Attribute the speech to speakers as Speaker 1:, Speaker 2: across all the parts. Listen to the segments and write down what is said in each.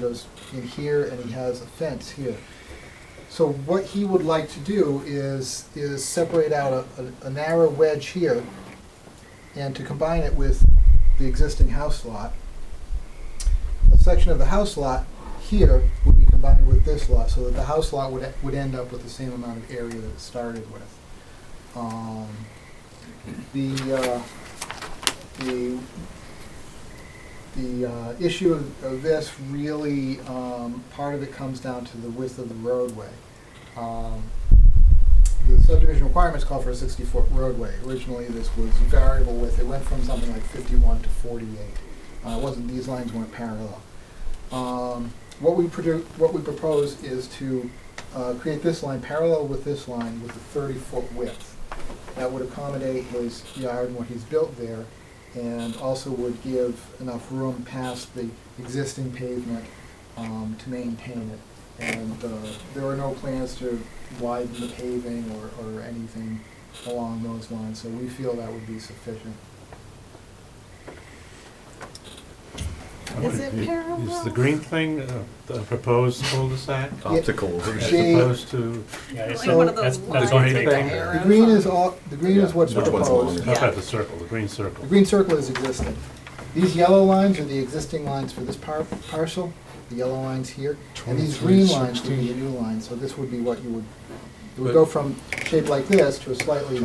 Speaker 1: goes in here and he has a fence here. So what he would like to do is, is separate out a, a- a narrow wedge here and to combine it with the existing house lot. A section of the house lot here would be combined with this lot, so that the house lot would, would end up with the same amount of area that it started with. Um, The, uh, the the uh, issue of of this really, um, part of it comes down to the width of the roadway. Um, The subdivision requirements call for a 60-foot roadway. Originally, this was variable width. It went from something like 51 to 48. Uh, It wasn't, these lines weren't parallel. Um, What we produ what we propose is to uh, create this line parallel with this line with a 30-foot width. That would accommodate his yard and what he's built there and also would give enough room past the existing pavement um, to maintain it. And uh, there are no plans to widen the paving or, or anything along those lines, so we feel that would be sufficient.
Speaker 2: Is it parallel?
Speaker 3: Is the green thing uh, the proposed cul-de-sac
Speaker 4: Optical.
Speaker 3: as
Speaker 1: They-
Speaker 3: opposed to,
Speaker 5: Yeah, it's
Speaker 1: Like
Speaker 5: not-
Speaker 1: one of
Speaker 5: that's,
Speaker 2: those
Speaker 5: that's one
Speaker 3: lines
Speaker 5: thing.
Speaker 3: that go
Speaker 1: The
Speaker 2: arrows
Speaker 1: green
Speaker 2: on-
Speaker 1: is all, the green is what's
Speaker 4: Which one's
Speaker 1: proposed.
Speaker 4: longer?
Speaker 3: how
Speaker 2: Yeah.
Speaker 3: about the circle, the green circle?
Speaker 1: The green circle is existing. These yellow lines are the existing lines for this par- parcel, the yellow lines here, and these green lines would be the new lines, so this would be what you would, it would go from shape like this to a slightly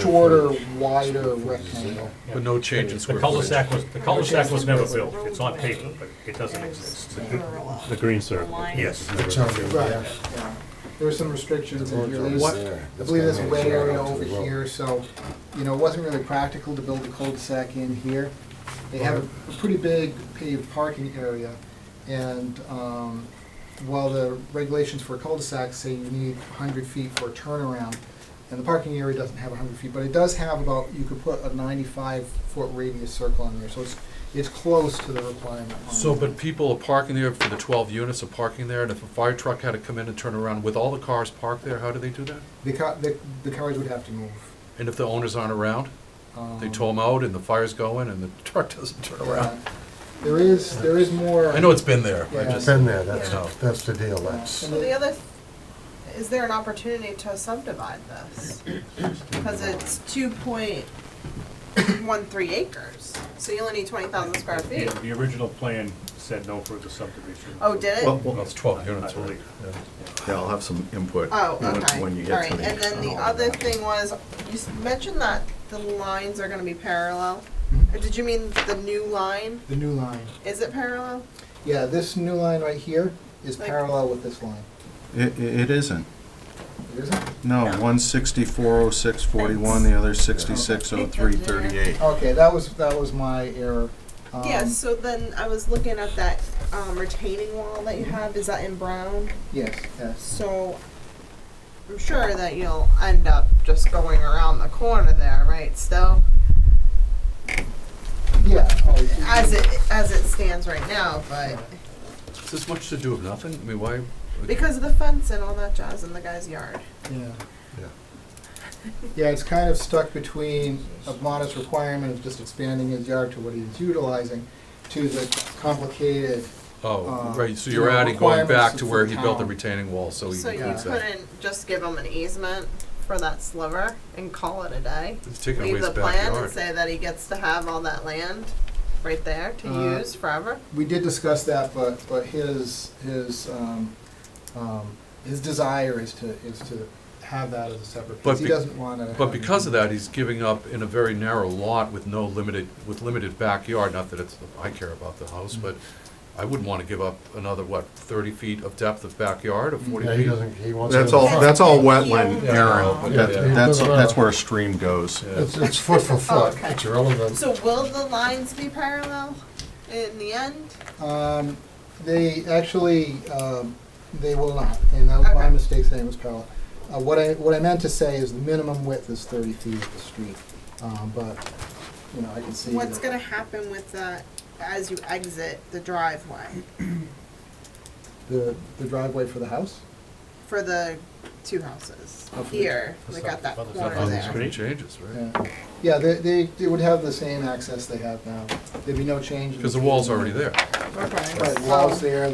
Speaker 1: shorter, wider rectangle.
Speaker 5: Yeah.
Speaker 4: But no change in square
Speaker 5: The cul-de-sac was, the cul-de-sac was never built,
Speaker 2: Roadway.
Speaker 5: it's on paper, but it doesn't exist.
Speaker 2: Parallel.
Speaker 3: The green circle.
Speaker 2: Line.
Speaker 5: Yes.
Speaker 1: Right, yeah. There were some restrictions in here. What- I believe there's a wet area over here, so, you know, it wasn't really practical to build a cul-de-sac in here. They have a pretty big paved parking area, and um, while the regulations for cul-de-sacs say you need 100 feet for a turnaround, and the parking area doesn't have 100 feet, but it does have about, you could put a 95-foot radius circle on there, so it's, it's close to the requirement. on
Speaker 4: So,
Speaker 1: that.
Speaker 4: but people are parking there for the twelve units are parking there, and if a fire truck had to come in and turn around with all the cars parked there, how do they do that?
Speaker 1: The ca- The the cars would have to move.
Speaker 4: And if the owners aren't around, they
Speaker 1: Um,
Speaker 4: tow them out and the fire's going and the truck doesn't turn around?
Speaker 1: There is, there is more.
Speaker 4: I know it's been there, I
Speaker 1: Yeah.
Speaker 4: just,
Speaker 6: Been there, that's,
Speaker 4: Yeah.
Speaker 6: that's the deal, that's,
Speaker 2: So the other, is there an opportunity to subdivide this? Because it's two point one three acres, so you only need twenty thousand square
Speaker 5: The
Speaker 2: feet.
Speaker 5: the original plan said no further subdivision.
Speaker 2: Oh, did it?
Speaker 4: well, it's twelve units,
Speaker 5: I
Speaker 4: right?
Speaker 5: believe.
Speaker 4: Yeah.
Speaker 7: Yeah, I'll have some input.
Speaker 2: Oh,
Speaker 7: when-
Speaker 2: okay, all
Speaker 7: When you get
Speaker 2: right,
Speaker 7: to me.
Speaker 2: and then the
Speaker 7: on all of
Speaker 2: other
Speaker 7: that.
Speaker 2: thing was, you s- mentioned that the lines are gonna be parallel. Or Did you mean the new line?
Speaker 1: The new line.
Speaker 2: Is it parallel?
Speaker 1: Yeah, this new line right here is
Speaker 2: Like-
Speaker 1: parallel with this line.
Speaker 8: It, it isn't.
Speaker 1: It isn't?
Speaker 8: No, one sixty-four oh six forty-one, the other sixty-six oh three thirty-eight.
Speaker 1: Okay, that was, that was my error. Um,
Speaker 2: Yeah, so then I was looking at that, um, retaining wall that you have, is that in brown?
Speaker 1: Yes, yes.
Speaker 2: So, I'm sure that you'll end up just going around the corner there, right, still?
Speaker 1: Yeah. oh,
Speaker 2: As it, as it stands right now, but,
Speaker 4: Is this much to do with nothing? I mean, why?
Speaker 2: because of the fence and all that jazz in the guy's yard.
Speaker 1: Yeah.
Speaker 6: yeah.
Speaker 1: Yeah, it's kind of stuck between a modest requirement of just expanding his yard to what he's utilizing to the complicated,
Speaker 4: Oh,
Speaker 1: Uh,
Speaker 4: right, so
Speaker 1: you
Speaker 4: you're
Speaker 1: know,
Speaker 4: adding, going back
Speaker 1: requirements
Speaker 4: to
Speaker 1: of
Speaker 4: where
Speaker 1: the
Speaker 4: he built the
Speaker 1: town.
Speaker 4: retaining wall, so he
Speaker 2: So you
Speaker 4: includes that.
Speaker 2: couldn't just give him an easement for that sliver and call it a day?
Speaker 4: It's taking away
Speaker 2: Leave
Speaker 4: his
Speaker 2: the plan
Speaker 4: backyard.
Speaker 2: and say that he gets to have all that land right there
Speaker 1: Uh,
Speaker 2: to use forever?
Speaker 1: we did discuss that, but, but his, his, um, um, his desire is to, is to have that as a separate
Speaker 4: But
Speaker 1: piece. He
Speaker 4: be-
Speaker 1: doesn't want to.
Speaker 4: But because of that, he's giving up in a very narrow lot with no limited, with limited backyard, not that it's, I care about the house,
Speaker 1: Mm.
Speaker 4: but I wouldn't want to give up another, what, thirty feet of depth of backyard or
Speaker 1: Mm.
Speaker 4: forty
Speaker 6: Yeah, he
Speaker 4: feet?
Speaker 6: doesn't, he wants.
Speaker 7: That's
Speaker 6: to-
Speaker 7: all, that's all wetland,
Speaker 2: Yeah.
Speaker 7: Aaron, but that-
Speaker 6: Yeah.
Speaker 7: that's, that's where a stream goes.
Speaker 6: It's, it's foot for foot,
Speaker 2: Oh, okay.
Speaker 6: it's irrelevant.
Speaker 2: So will the lines be parallel in the end?
Speaker 1: Um, They actually, um, they will not, and that was my
Speaker 2: Okay.
Speaker 1: mistake saying it was parallel. Uh, What I, what I meant to say is the minimum width is 30 feet of the street, Um, but, you know, I can see.
Speaker 2: What's
Speaker 1: that-
Speaker 2: gonna happen with that as you exit the driveway
Speaker 1: The the driveway for the house?
Speaker 2: for the two houses
Speaker 1: Oh, for the-
Speaker 2: here?
Speaker 5: for
Speaker 2: They
Speaker 5: the
Speaker 2: got that
Speaker 5: south- for the
Speaker 2: corner
Speaker 5: south-
Speaker 2: there.
Speaker 4: Nothing changes, right?
Speaker 1: Yeah. Yeah, they, they they would have the same access they have now. There'd be no change. in
Speaker 4: Because the wall's already there.
Speaker 2: Okay.
Speaker 1: Right, wall's there,